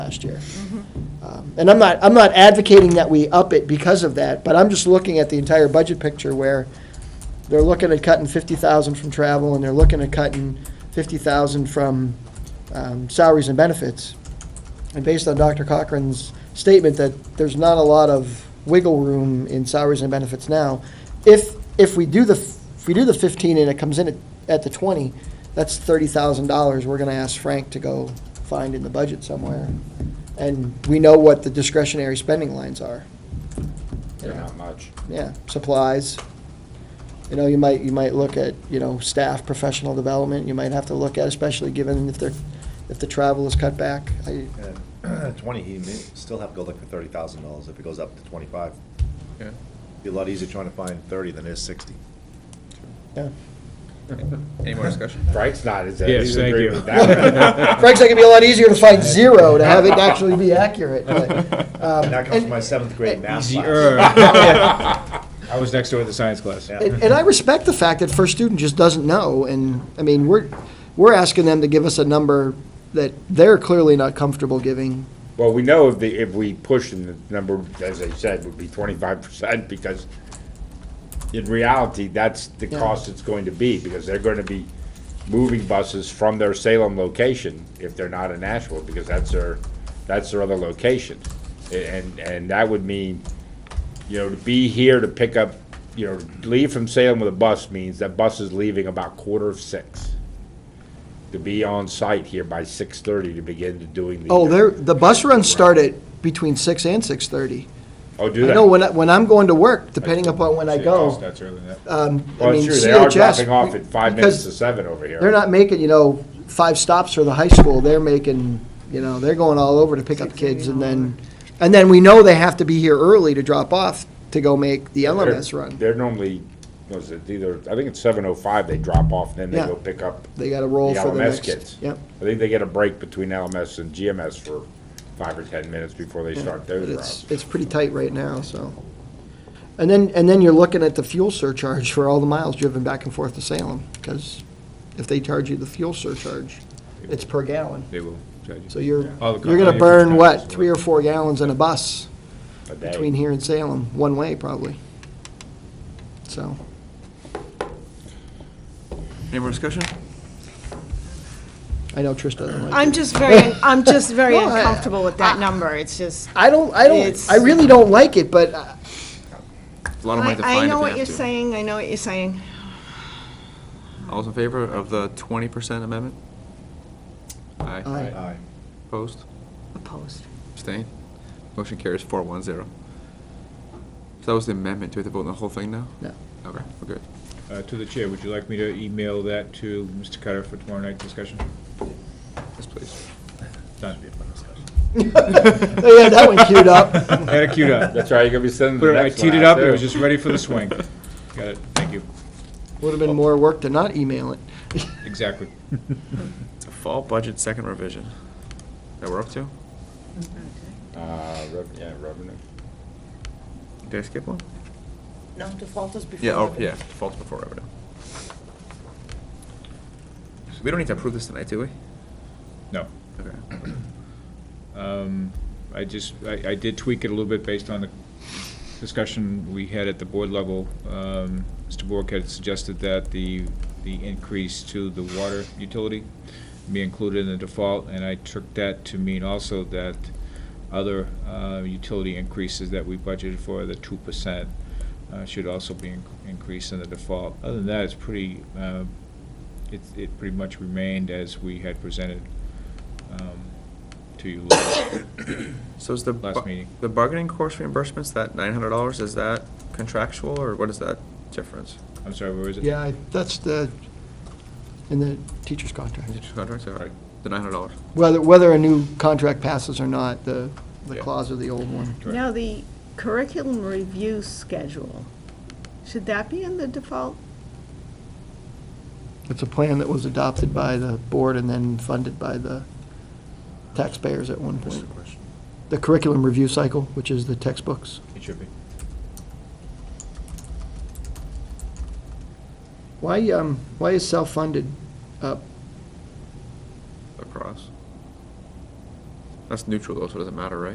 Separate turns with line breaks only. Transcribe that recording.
last year. Um, And I'm not, I'm not advocating that we up it because of that, but I'm just looking at the entire budget picture where they're looking at cutting fifty thousand from travel, and they're looking at cutting fifty thousand from um, salaries and benefits. And based on Dr. Cochran's statement that there's not a lot of wiggle room in salaries and benefits now, if, if we do the, if we do the fifteen and it comes in at, at the twenty, that's thirty thousand dollars we're gonna ask Frank to go find in the budget somewhere. And we know what the discretionary spending lines are.
They're not much.
Yeah, supplies. You know, you might, you might look at, you know, staff, professional development, you might have to look at, especially given if they're, if the travel is cut back. I,
And Twenty, he may still have to go look for thirty thousand dollars if it goes up to twenty-five. Be a lot easier trying to find thirty than it is sixty.
yeah.
Any more discussion?
Frank's not, is it?
Yes,
He's
thank
agreeing
you.
with that one.
Frank's like, it'd be a lot easier to find zero to have it actually be accurate, but, um,
And that comes
and-
from my seventh grade math
Easier.
class.
I was next door at the science class.
Yeah.
And, and I respect the fact that first student just doesn't know, and, I mean, we're, we're asking them to give us a number that they're clearly not comfortable giving.
Well, we know if the, if we push, and the number, as I said, would be twenty-five percent, because in reality, that's the
Yeah.
cost it's going to be, because they're gonna be moving buses from their Salem location, if they're not in Nashville, because that's their, that's their other location. A- And, and that would mean, you know, to be here to pick up, you know, leave from Salem with a bus means that bus is leaving about quarter of six. To be on site here by six-thirty to begin to doing the.
Oh, they're, the bus runs start at between six and six-thirty.
Oh, do they?
I know when, I- when I'm going to work, depending upon when I go,
That's early enough.
um, I
Well,
mean,
it's true, they are
CHS,
dropping off at five minutes
because
to seven over here.
They're not making, you know, five stops for the high school, they're making, you know, they're going all over to pick up kids, and then, and then we know they have to be here early to drop off to go make the
They're-
LMS run.
They're normally, was it either, I think it's seven oh five, they drop off, then they
Yeah.
go pick up.
They gotta roll for the
LMS
next.
kids.
Yep,
I think they get a break between LMS and GMS for five or ten minutes before they start
but
those
it's,
routes.
it's pretty tight right now, so. And then, and then you're looking at the fuel surcharge for all the miles driven back and forth to Salem, because if they charge you the fuel surcharge, it's per gallon.
They will charge you.
So you're,
All the-
you're
all
gonna
your
burn, what,
contractors.
three or four gallons in a bus
a day.
between here and Salem, one way probably. So,
Any more discussion?
I know Trish doesn't like it.
I'm just very, I'm just very
No, I-
uncomfortable with that number, it's just,
I don't, I don't,
It's-
I really don't like it, but uh,
A lot of money
I
to
I
find
know
if we
what
have
you're
to.
saying, I know what you're saying.
All's in favor of the twenty percent amendment? Aye.
I,
Aye.
Opposed?
Opposed.
Abstained? Motion carries four one zero. So that was the amendment. Do we have to vote on the whole thing now?
no.
Okay, we're good.
Uh, To the chair, would you like me to email that to Mr. Cutter for tomorrow night discussion?
Yes, please.
Done.
They had that one queued up.
I had it queued up.
That's right, you're gonna be sending the
Put it- I
next one
teed it
out,
up, it
too.
was just ready for the swing. Got it, thank you,
Would have been more work to not email it.
exactly.
It's a fall budget second revision that we're up to.
Uh, rev- yeah, revenue.
Did I skip one?
No, default is before.
Yeah, oh,
revenue.
yeah, falls before revenue. We don't need to approve this tonight, do we?
No.
Okay.
Um, I just, I, I did tweak it a little bit based on the discussion we had at the board level. Um, Mr. Bork had suggested that the, the increase to the water utility be included in the default, and I took that to mean also that other uh, utility increases that we budgeted for, the two percent, uh, should also be in- increased in the default. Other than that, it's pretty, uh, it's- it pretty much remained as we had presented um, to you last
So is the.
Last
bu-
meeting.
The bargaining course reimbursements, that nine hundred dollars, is that contractual, or what is that difference?
I'm sorry, where is it?
Yeah, I- that's the, in the teacher's contract.
Is it just contracts, all right, the nine hundred dollars?
Whether, whether a new contract passes or not, the, the
Yeah.
clause of the old one.
Correct.
Now, the curriculum review schedule, should that be in the default?
It's a plan that was adopted by the board and then funded by the taxpayers at one point. The curriculum review cycle, which is the textbooks.
It should be.
Why, um, why is self-funded up?
Across. That's neutral though, so it doesn't matter, right?